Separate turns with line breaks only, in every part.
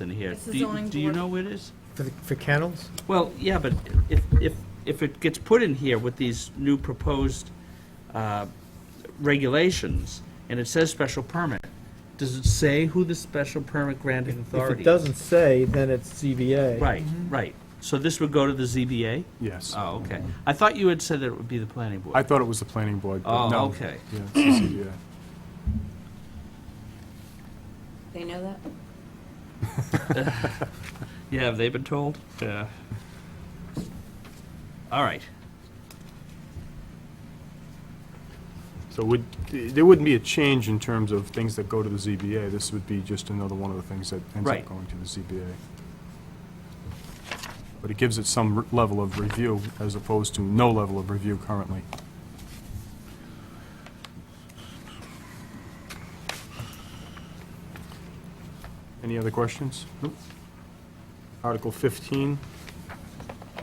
in here.
It's the
Do you-
zoning
Do you
board.
know what it is?
For, the- for kennels?
Well, yeah, but if, if, if it gets put in here with these new proposed uh, regulations, and it says special permit, does it say who the special permit granting authority is?
If it doesn't say, then it's ZBA.
Right,
Mm-hmm.
right. So this would go to the ZBA?
Yes.
Oh, okay. I thought you had said that it would be the planning
I
board.
thought it was the planning board, but
Oh,
no.
okay.
Yeah, it's the ZBA.
They know that?
Yeah, have they been told? Yeah. All right.
So would, there wouldn't be a change in terms of things that go to the ZBA. This would be just another one of the things that ends
Right.
up going to the ZBA. But it gives it some re- level of review as opposed to no level of review currently. Any other questions? Article 15. Uh,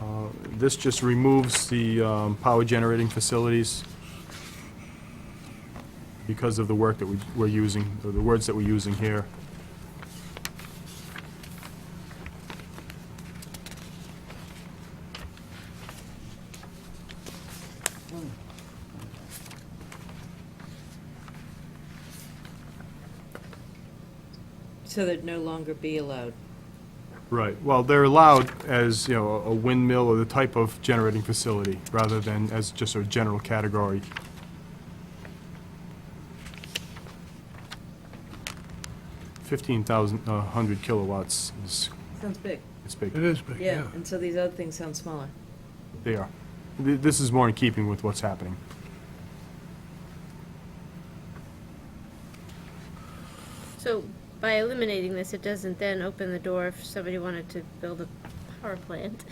This just removes the um, power generating facilities because of the work that we, we're using, or the words that we're using here.
So they'd no longer be allowed.
Right, well, they're allowed as, you know, a windmill or the type of generating facility, rather than as just a general category. Fifteen thousand, a hundred kilowatts is,
Sounds big.
is big,
It is big, yeah.
Yeah, and so these other things sound smaller.
they are. Th- This is more in keeping with what's happening.
So by eliminating this, it doesn't then open the door if somebody wanted to build a power plant.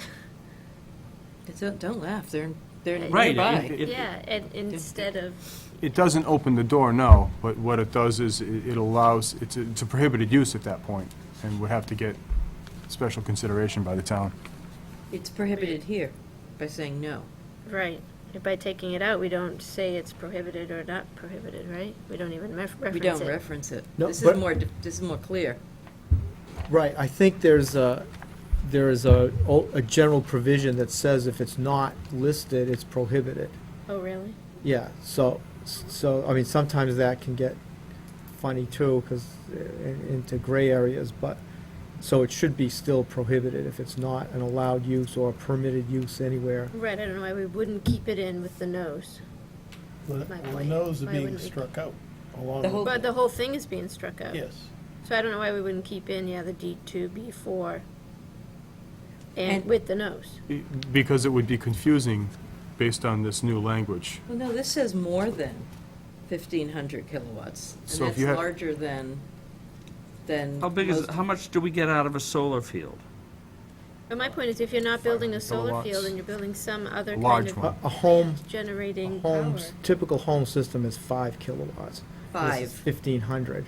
It's- Don't laugh, they're, they're
Right,
nearby.
it- it-
Yeah, and instead of,
It doesn't open the door, no, but what it does is i- it allows, it's a it's a prohibited use at that point, and would have to get special consideration by the town.
It's prohibited here by saying no.
right, by taking it out, we don't say it's prohibited or not prohibited, right? We don't even ref- reference
We
it.
don't reference it.
No,
This is
but-
more, dif- this is more clear.
Right, I think there's a, there is a, a general provision that says if it's not listed, it's prohibited.
Oh, really?
Yeah, so, so, I mean, sometimes that can get funny too, because into gray areas, but, so it should be still prohibited if it's not an allowed use or permitted use anywhere.
Right, I don't know why we wouldn't keep it in with the nose.
Well,
My
the
point.
no's are
Why
being
wouldn't we-
struck out along
The whole-
with,
But the whole thing is being struck out.
yes.
So I don't know why we wouldn't keep in, yeah, the D two, B four, and
And-
with the nose.
I- Because it would be confusing based on this new language.
Well, no, this says more than 1,500 kilowatts. And
So if
that's
you had-
larger than, than.
How big is,
most-
how much do we get out of a solar field?
But my point is, if you're not building
500
a solar
kilowatts.
field and you're building some other kind
Large
of
one.
A, a home, a
generating power.
home's, typical home system is five kilowatts.
Five.
Fifteen hundred.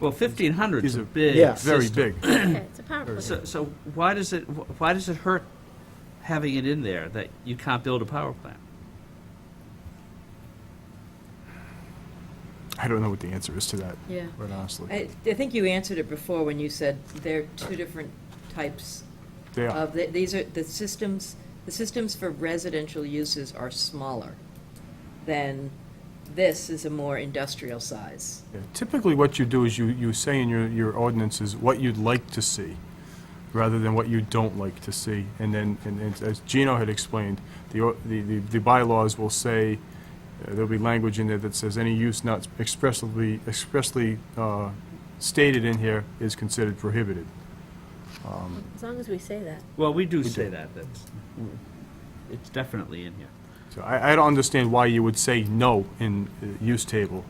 Well, 1,500 is
These
a
are-
big
Yeah.
Very
system.
big.
Okay, it's a power plant.
So, so why does it, wh- why does it hurt having it in there that you can't build a power plant?
I don't know what the answer is to that,
Yeah.
quite honestly.
I, I think you answered it before when you said there are two different types
They are,
of, the- these are, the systems, the systems for residential uses are smaller than, this is a more industrial size.
Yeah. Typically, what you do is you, you say in your, your ordinances what you'd like to see, rather than what you don't like to see. And then, and and as Gino had explained, the, or- the, the the bylaws will say, uh, there'll be language in there that says any use not expressly, expressly uh, stated in here is considered prohibited.
As long as we say that.
Well, we do say that, that's, it's definitely in here.
So I, I don't understand why you would say no in uh, use table.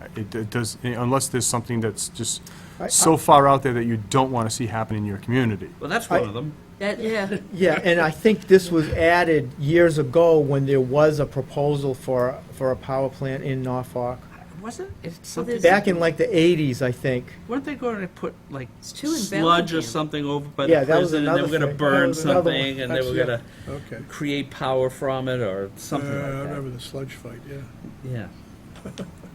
Uh, It it does, unless there's something that's just
I-
so far out there that you don't want to see happen in your community.
Well, that's
I-
one of them.
That, yeah,
Yeah, and I think this was added years ago when there was a proposal for, for a power plant in Norfolk.
Was it? It's
Well,
something,
there's-
Back in like the eighties, I think.
weren't they going to put like
It's too in
sludge or
Bellingham.
something over by
Yeah,
the
that was
prison and they were
another
gonna
thing. That
burn
was another one.
something and they were
That's-
gonna
Okay.
create power from it or
Yeah,
something
I
like that?
remember the sludge fight, yeah.
Yeah.